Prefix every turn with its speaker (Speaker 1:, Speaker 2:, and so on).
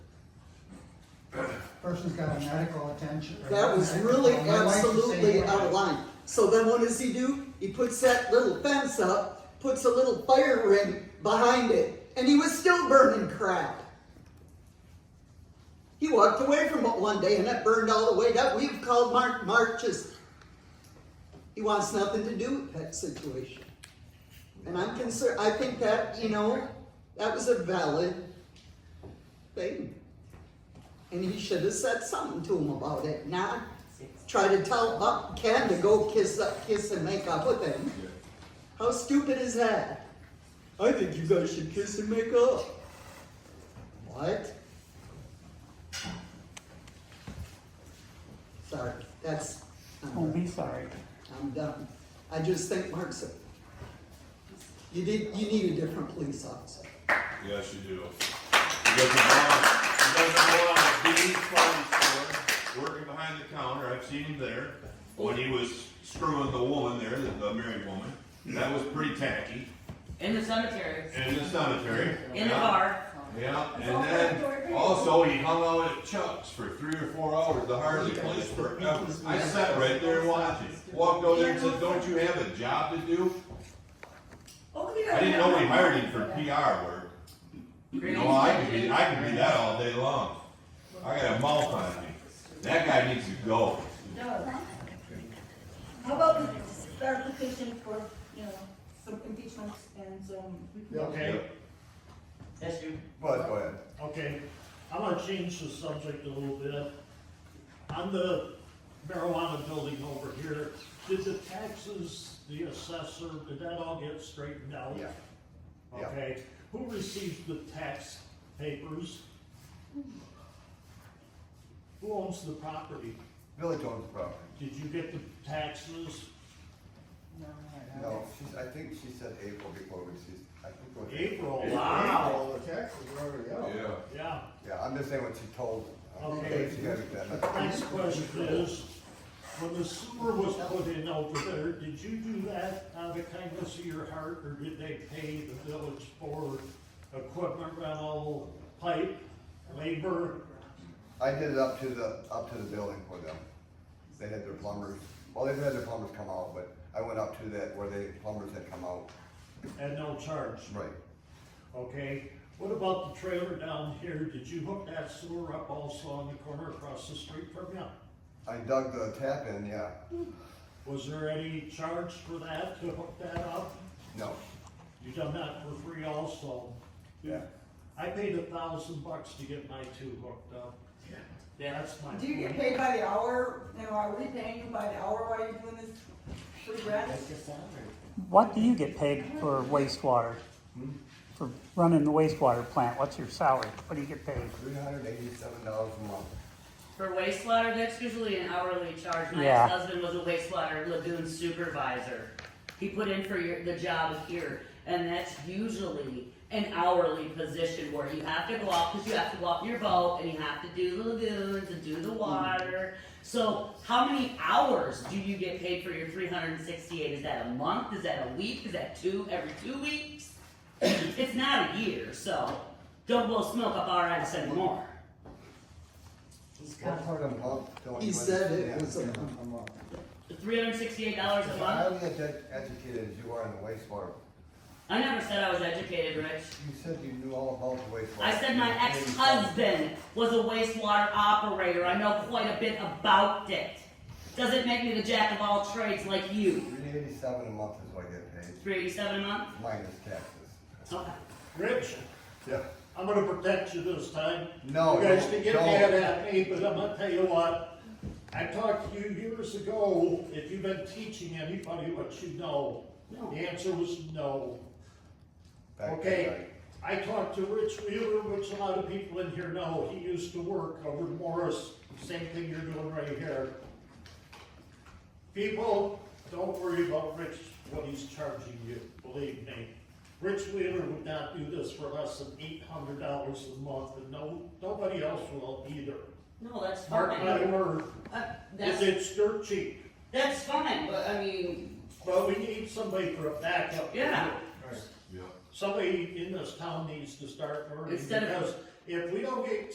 Speaker 1: person's got a medical attention. or
Speaker 2: That was
Speaker 1: medical-
Speaker 2: really
Speaker 1: my wife's the same
Speaker 2: absolutely
Speaker 1: way.
Speaker 2: out of line. So then what does he do? He puts that little fence up, puts a little fire ring behind it, and he was still burning crap. He walked away from it one day and it burned all the way up. We've called Mark Marches. He wants nothing to do with that situation. And I'm concerned, I think that, you know, that was a valid thing. And he should have said something to him about it, not try to tell Buck Ken to go kiss up, kiss and make up with him. How stupid is that? I think you guys should kiss and make up. What? Sorry, that's, I'm
Speaker 3: Don't
Speaker 2: done.
Speaker 3: be sorry.
Speaker 2: I'm done. I just think Mark's, you did, you need a different police officer.
Speaker 4: Yes, you do. You guys are going on the Dean's phone store, working behind the counter, I've seen him there, when he was screwing the woman there, the, the married woman. That was pretty tacky,
Speaker 5: In the cemetery.
Speaker 4: and in the cemetery.
Speaker 5: In the
Speaker 4: yeah.
Speaker 5: bar.
Speaker 4: Yeah, and then also he hung out at Chuck's for three or four hours, the hardly place forever. I sat right there watching, walked over there and said, don't you have a job to do? I didn't know we hired him for PR work. No, I could be, I could be that all day long. I got a mouth on me. That guy needs to go.
Speaker 6: How about we start the petition for, you know, some impeachments and some.
Speaker 7: Okay,
Speaker 5: That's you.
Speaker 8: Bud, go ahead.
Speaker 7: okay, I wanna change the subject a little bit. On the marijuana building over here, did the taxes, the assessor, did that all get straightened out?
Speaker 8: Yeah. yeah.
Speaker 7: Okay, who receives the tax papers? Who owns the property?
Speaker 8: Village owns the property.
Speaker 7: Did you get the taxes?
Speaker 8: No, she's, I think she said April before we, she's, I think. what-
Speaker 7: April, wow,
Speaker 1: Wow, the taxes are already out.
Speaker 7: yeah.
Speaker 8: Yeah, I'm just saying what she told. I don't
Speaker 7: Okay.
Speaker 8: think She hasn't done that.
Speaker 7: Next question is, when the sewer was put in over there, did you do that out of the kindness of your heart, or did they pay the village for equipment rental, pipe, labor?
Speaker 8: I did it up to the, up to the building for them. They had their plumbers, well, they had their plumbers come out, but I went up to that where they, plumbers had come out.
Speaker 7: And no charge,
Speaker 8: Right.
Speaker 7: okay? What about the trailer down here, did you hook that sewer up also on the corner across the street from you?
Speaker 8: I dug the tap in, yeah.
Speaker 7: Was there any charge for that, to hook that up?
Speaker 8: No,
Speaker 7: You done that for free also?
Speaker 8: yeah.
Speaker 7: I paid a thousand bucks to get my two hooked up.
Speaker 5: Yeah.
Speaker 7: That's my
Speaker 6: Do you get
Speaker 7: point.
Speaker 6: paid by the hour? Now, are we paying you by the hour while you're doing this free gratis?
Speaker 3: What do you get paid for wastewater? For running the wastewater plant, what's your salary? What do you get paid?
Speaker 8: Three hundred eighty-seven dollars a month.
Speaker 5: For wastewater, that's usually an hourly charge. My
Speaker 3: Yeah.
Speaker 5: ex-husband was a wastewater lagoon supervisor. He put in for your, the job here, and that's usually an hourly position where you have to go out, cause you have to go out in your boat, and you have to do the lagoons and do the water. So how many hours do you get paid for your three hundred and sixty-eight? Is that a month? Is that a week? Is that two, every two weeks? It's not a year, so don't blow smoke up our ass anymore.
Speaker 8: What part of month? don't
Speaker 2: He
Speaker 8: you
Speaker 2: said it was
Speaker 8: understand?
Speaker 2: a month.
Speaker 1: I'm up.
Speaker 5: Three hundred and sixty-eight dollars a
Speaker 8: As
Speaker 5: month?
Speaker 8: highly edu- educated as you are in the wastewater,
Speaker 5: I never said I was educated, Rich.
Speaker 8: you said you knew all about the wastewater.
Speaker 5: I said my ex-husband was a wastewater operator. I know quite a bit about it. Doesn't make me the jack of all trades like you.
Speaker 8: Three eighty-seven a month is what I get paid,
Speaker 5: Three eighty-seven a month?
Speaker 8: minus taxes.
Speaker 5: Okay.
Speaker 7: Rich,
Speaker 8: Yeah.
Speaker 7: I'm gonna protect you this time.
Speaker 8: No,
Speaker 7: You guys
Speaker 8: don't-
Speaker 7: can get
Speaker 8: don't.
Speaker 7: mad at me, but I'm gonna tell you what. I talked to you years ago, if you've been teaching anybody what you know, the answer was no.
Speaker 8: Back to
Speaker 7: Okay,
Speaker 8: back.
Speaker 7: I talked to Rich Wheeler, which a lot of people in here know, he used to work over in Morris, same thing you're doing right here. People, don't worry about Rich, what he's charging you, believe me. Rich Wheeler would not do this for less than eight hundred dollars a month, and no, nobody else will either.
Speaker 5: No, that's
Speaker 7: Mark my
Speaker 5: fine.
Speaker 7: word,
Speaker 5: Uh,
Speaker 7: if
Speaker 5: that's,
Speaker 7: it's dirt cheap,
Speaker 5: that's fine, but I mean,
Speaker 7: but we need somebody for a backup.
Speaker 5: Yeah.
Speaker 4: Yeah.
Speaker 7: somebody in this town needs to start learning,
Speaker 5: Instead of-
Speaker 7: because if we don't get